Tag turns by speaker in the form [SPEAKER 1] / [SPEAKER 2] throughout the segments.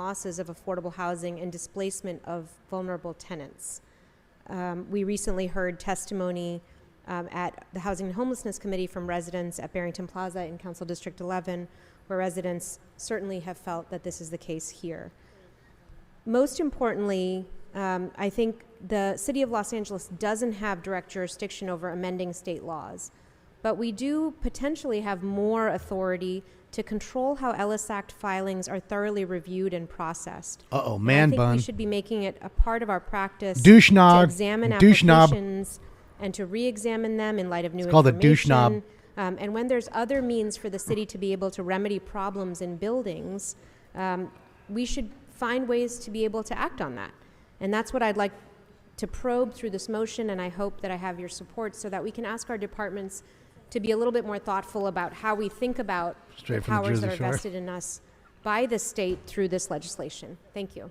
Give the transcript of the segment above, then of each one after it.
[SPEAKER 1] losses of affordable housing and displacement of vulnerable tenants. Um, we recently heard testimony um, at the Housing and Homelessness Committee from residents at Barrington Plaza in Council District 11, where residents certainly have felt that this is the case here. Most importantly, um, I think the City of Los Angeles doesn't have direct jurisdiction over amending state laws, but we do potentially have more authority to control how Ellis Act filings are thoroughly reviewed and processed.
[SPEAKER 2] Uh oh,
[SPEAKER 1] I
[SPEAKER 2] man
[SPEAKER 1] think
[SPEAKER 2] bun.
[SPEAKER 1] we should be making it a part of our practice
[SPEAKER 2] Douche
[SPEAKER 1] to
[SPEAKER 2] knob.
[SPEAKER 1] examine
[SPEAKER 2] Douche knob.
[SPEAKER 1] applications and to re-examine them in light of new
[SPEAKER 2] It's called a
[SPEAKER 1] information.
[SPEAKER 2] douche knob.
[SPEAKER 1] Um, and when there's other means for the city to be able to remedy problems in buildings, um, we should find ways to be able to act on that. And that's what I'd like to probe through this motion, and I hope that I have your support so that we can ask our departments to be a little bit more thoughtful about how we think about
[SPEAKER 2] Straight
[SPEAKER 1] the
[SPEAKER 2] from the
[SPEAKER 1] powers
[SPEAKER 2] Jersey
[SPEAKER 1] that are
[SPEAKER 2] Shore.
[SPEAKER 1] vested in us by the state through this legislation. Thank you.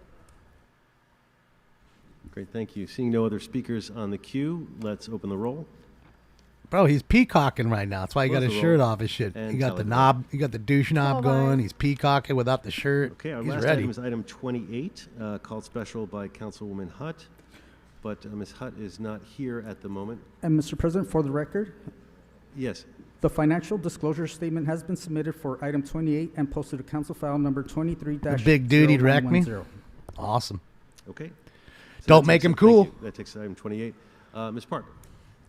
[SPEAKER 3] Great, thank you. Seeing no other speakers on the queue, let's open the roll.
[SPEAKER 2] Bro, he's peacocking right now. That's why he got
[SPEAKER 3] Both
[SPEAKER 2] his
[SPEAKER 3] of
[SPEAKER 2] shirt
[SPEAKER 3] them.
[SPEAKER 2] off his shit.
[SPEAKER 3] And
[SPEAKER 2] he got the
[SPEAKER 3] telephone.
[SPEAKER 2] knob, he got the douche knob going. He's peacocking without the shirt.
[SPEAKER 3] Okay, our
[SPEAKER 2] he's
[SPEAKER 3] last
[SPEAKER 2] ready.
[SPEAKER 3] item is item 28, uh, called special by Councilwoman Hutt, but uh, Ms. Hutt is not here at the moment.
[SPEAKER 4] And Mr. President, for the record,
[SPEAKER 3] Yes,
[SPEAKER 4] the financial disclosure statement has been submitted for item 28 and posted to council file number 23
[SPEAKER 2] The big dude'd wreck me? awesome.
[SPEAKER 3] okay. So
[SPEAKER 2] Don't
[SPEAKER 3] that
[SPEAKER 2] make
[SPEAKER 3] takes
[SPEAKER 2] him
[SPEAKER 3] us- thank
[SPEAKER 2] cool.
[SPEAKER 3] you. That takes us to item 28. Uh, Ms. Park,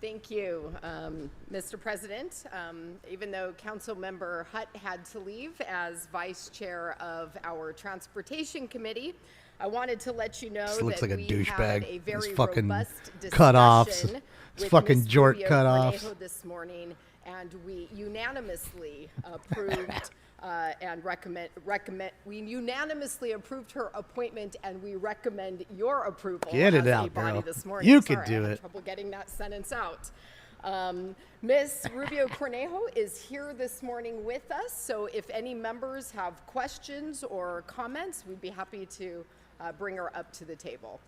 [SPEAKER 5] Thank you, um, Mr. President. Um, Even though Councilmember Hutt had to leave as Vice Chair of our Transportation Committee, I wanted to let you know
[SPEAKER 2] This looks
[SPEAKER 5] that
[SPEAKER 2] like a
[SPEAKER 5] we had
[SPEAKER 2] douchebag.
[SPEAKER 5] a
[SPEAKER 2] His
[SPEAKER 5] very
[SPEAKER 2] fucking
[SPEAKER 5] robust
[SPEAKER 2] cutoffs.
[SPEAKER 5] discussion
[SPEAKER 2] His
[SPEAKER 5] with
[SPEAKER 2] fucking
[SPEAKER 5] Ms.
[SPEAKER 2] jort
[SPEAKER 5] Rubio
[SPEAKER 2] cutoffs.
[SPEAKER 5] Cornejo this morning, and we unanimously approved uh, and recommend, recommend, we unanimously approved her appointment, and we recommend your approval
[SPEAKER 2] Get it
[SPEAKER 5] as a
[SPEAKER 2] out,
[SPEAKER 5] body
[SPEAKER 2] girl.
[SPEAKER 5] this morning.
[SPEAKER 2] You could
[SPEAKER 5] Sorry, I
[SPEAKER 2] do
[SPEAKER 5] had
[SPEAKER 2] it.
[SPEAKER 5] trouble getting that sentence out. Um, Ms. Rubio Cornejo is here this morning with us, so if any members have questions or comments, we'd be happy to uh, bring her up to the table.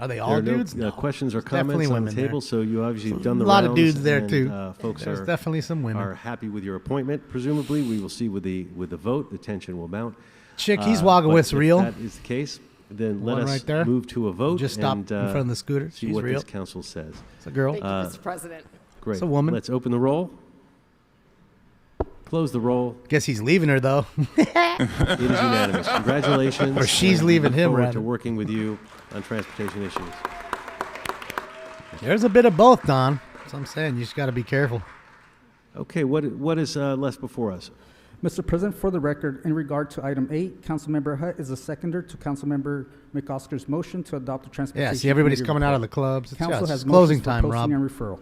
[SPEAKER 2] Are they
[SPEAKER 3] there
[SPEAKER 2] all
[SPEAKER 3] are no
[SPEAKER 2] dudes?
[SPEAKER 3] uh, questions or
[SPEAKER 2] There's definitely
[SPEAKER 3] comments on the
[SPEAKER 2] women there.
[SPEAKER 3] table, so you obviously have done the
[SPEAKER 2] A lot
[SPEAKER 3] rounds.
[SPEAKER 2] of dudes there,
[SPEAKER 3] and,
[SPEAKER 2] too.
[SPEAKER 3] uh, Folks
[SPEAKER 2] There's
[SPEAKER 3] are-
[SPEAKER 2] definitely some women.
[SPEAKER 3] Are happy with your appointment, presumably. We will see with the, with the vote, the tension will mount.
[SPEAKER 2] Chick, he's
[SPEAKER 3] Uh,
[SPEAKER 2] walking
[SPEAKER 3] but
[SPEAKER 2] with
[SPEAKER 3] if
[SPEAKER 2] real.
[SPEAKER 3] that is the case, then let
[SPEAKER 2] One
[SPEAKER 3] us
[SPEAKER 2] right there.
[SPEAKER 3] move to a vote.
[SPEAKER 2] Just stop
[SPEAKER 3] and,
[SPEAKER 2] in
[SPEAKER 3] uh,
[SPEAKER 2] front of the scooter.
[SPEAKER 3] See
[SPEAKER 2] She's
[SPEAKER 3] what
[SPEAKER 2] real.
[SPEAKER 3] this council says.
[SPEAKER 2] It's a girl.
[SPEAKER 3] Uh,
[SPEAKER 5] Thank you, Mr. President.
[SPEAKER 3] Great.
[SPEAKER 2] It's a woman.
[SPEAKER 3] Let's open the roll. Close the roll.
[SPEAKER 2] Guess he's leaving her though.
[SPEAKER 3] It is unanimous. Congratulations.
[SPEAKER 2] Or she's
[SPEAKER 3] and we
[SPEAKER 2] leaving
[SPEAKER 3] look
[SPEAKER 2] him,
[SPEAKER 3] Forward
[SPEAKER 2] rather.
[SPEAKER 3] to working with you on transportation issues.
[SPEAKER 2] There's a bit of both, Don. So I'm saying you just got to be careful.
[SPEAKER 3] Okay. What what is uh, left before us?
[SPEAKER 4] Mr. President, for the record, in regard to item 8, Councilmember Hutt is a seconder to Councilmember McOsker's motion to adopt the transportation.
[SPEAKER 2] Yeah, see, everybody's
[SPEAKER 4] Committee
[SPEAKER 2] coming out of the
[SPEAKER 4] report.
[SPEAKER 2] clubs. It's, yeah,
[SPEAKER 4] Council
[SPEAKER 2] it's
[SPEAKER 4] has
[SPEAKER 2] closing
[SPEAKER 4] motions for
[SPEAKER 2] time, Rob.
[SPEAKER 4] posting and referral.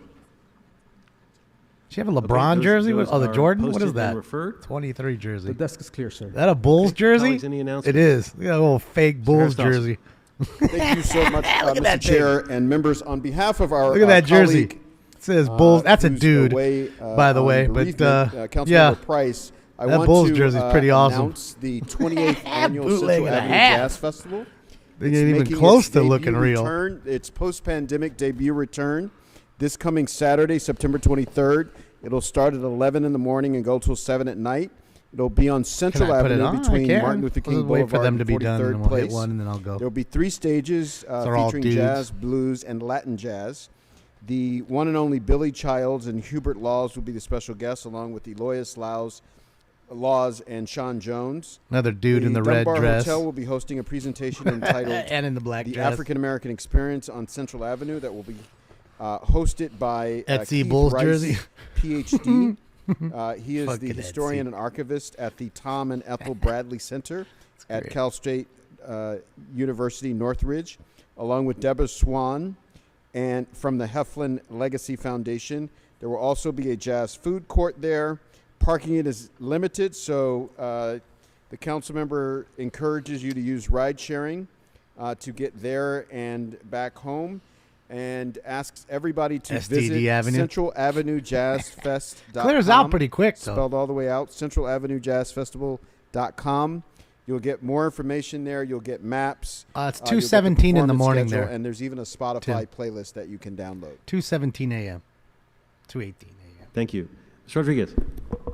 [SPEAKER 2] She have a LeBron
[SPEAKER 3] those-
[SPEAKER 2] jersey?
[SPEAKER 3] those
[SPEAKER 2] oh, the
[SPEAKER 3] are
[SPEAKER 2] Jordan? What
[SPEAKER 3] posted
[SPEAKER 2] is
[SPEAKER 3] and
[SPEAKER 2] that?
[SPEAKER 3] referred.
[SPEAKER 2] 23
[SPEAKER 4] The
[SPEAKER 2] jersey. Is
[SPEAKER 4] desk is clear, sir.
[SPEAKER 2] that a Bulls jersey?
[SPEAKER 3] Colleagues, any
[SPEAKER 2] It
[SPEAKER 3] announcement?
[SPEAKER 2] is. Look at that little fake Bulls
[SPEAKER 3] Dawson.
[SPEAKER 2] jersey.
[SPEAKER 6] Thank you so much, uh,
[SPEAKER 2] Look at that
[SPEAKER 6] Mr. Chair and members. On behalf of our
[SPEAKER 2] Look at
[SPEAKER 6] uh,
[SPEAKER 2] that jersey.
[SPEAKER 6] colleague,
[SPEAKER 2] It says
[SPEAKER 6] uh,
[SPEAKER 2] Bulls. That's a
[SPEAKER 6] who's
[SPEAKER 2] dude,
[SPEAKER 6] away, uh,
[SPEAKER 2] by the
[SPEAKER 6] on
[SPEAKER 2] way. But
[SPEAKER 6] bereavement,
[SPEAKER 2] uh,
[SPEAKER 6] Councilmember
[SPEAKER 2] yeah,
[SPEAKER 6] Price, I
[SPEAKER 2] That
[SPEAKER 6] want
[SPEAKER 2] Bulls
[SPEAKER 6] to
[SPEAKER 2] jersey's
[SPEAKER 6] uh,
[SPEAKER 2] pretty awesome.
[SPEAKER 6] announce the 28th annual
[SPEAKER 2] Bootleg
[SPEAKER 6] Central
[SPEAKER 2] and a
[SPEAKER 6] Avenue
[SPEAKER 2] half.
[SPEAKER 6] Jazz Festival.
[SPEAKER 2] they
[SPEAKER 6] It's
[SPEAKER 2] ain't even
[SPEAKER 6] making
[SPEAKER 2] close
[SPEAKER 6] its
[SPEAKER 2] to
[SPEAKER 6] debut
[SPEAKER 2] looking real.
[SPEAKER 6] Return, its post-pandemic debut return this coming Saturday, September 23rd. It'll start at 11 in the morning and go till 7 at night. It'll be on Central
[SPEAKER 2] I put it
[SPEAKER 6] Avenue
[SPEAKER 2] on? I
[SPEAKER 6] between
[SPEAKER 2] can.
[SPEAKER 6] Martin Luther King
[SPEAKER 2] We'll wait
[SPEAKER 6] Boulevard
[SPEAKER 2] for them to
[SPEAKER 6] and
[SPEAKER 2] be done,
[SPEAKER 6] 43rd
[SPEAKER 2] and then we'll hit
[SPEAKER 6] place.
[SPEAKER 2] one, and then I'll go.
[SPEAKER 6] There'll be three stages uh,
[SPEAKER 2] They're all
[SPEAKER 6] featuring
[SPEAKER 2] dudes.
[SPEAKER 6] jazz, blues, and Latin jazz. The one and only Billy Childs and Hubert Laws will be the special guests, along with Elois Laws, Laws and Sean Jones.
[SPEAKER 2] Another dude in the red
[SPEAKER 6] Dunbar
[SPEAKER 2] dress.
[SPEAKER 6] Hotel will be hosting a presentation entitled
[SPEAKER 2] and in the black
[SPEAKER 6] the
[SPEAKER 2] dress.
[SPEAKER 6] African American Experience on Central Avenue that will be uh, hosted by uh,
[SPEAKER 2] Etsy
[SPEAKER 6] Keith
[SPEAKER 2] Bulls
[SPEAKER 6] Rice,
[SPEAKER 2] jersey.
[SPEAKER 6] PhD. Uh, he is the
[SPEAKER 2] Fucking
[SPEAKER 6] historian
[SPEAKER 2] Etsy.
[SPEAKER 6] and archivist at the Tom and Ethel Bradley Center at
[SPEAKER 2] great.
[SPEAKER 6] Cal State uh, University Northridge, along with Deborah Swan and from the Heflin Legacy Foundation. There will also be a jazz food court there. Parking it is limited, so uh, the council member encourages you to use ride sharing uh, to get there and back home, and asks everybody to
[SPEAKER 2] SDD
[SPEAKER 6] visit
[SPEAKER 2] Avenue.
[SPEAKER 6] Central Avenue Jazz Fest.
[SPEAKER 2] Clears out pretty quick, though.
[SPEAKER 6] Spelled all the way out. Central Avenue Jazz Festival.com. You'll get more information there. You'll get maps.
[SPEAKER 2] Uh, it's
[SPEAKER 6] you'll get the
[SPEAKER 2] 2:17 in the
[SPEAKER 6] performance
[SPEAKER 2] morning
[SPEAKER 6] schedule,
[SPEAKER 2] there.
[SPEAKER 6] And there's even a Spotify playlist that you can download.
[SPEAKER 2] 2:17 a.m. 2:18 a.m.
[SPEAKER 3] Thank you. Rodriguez.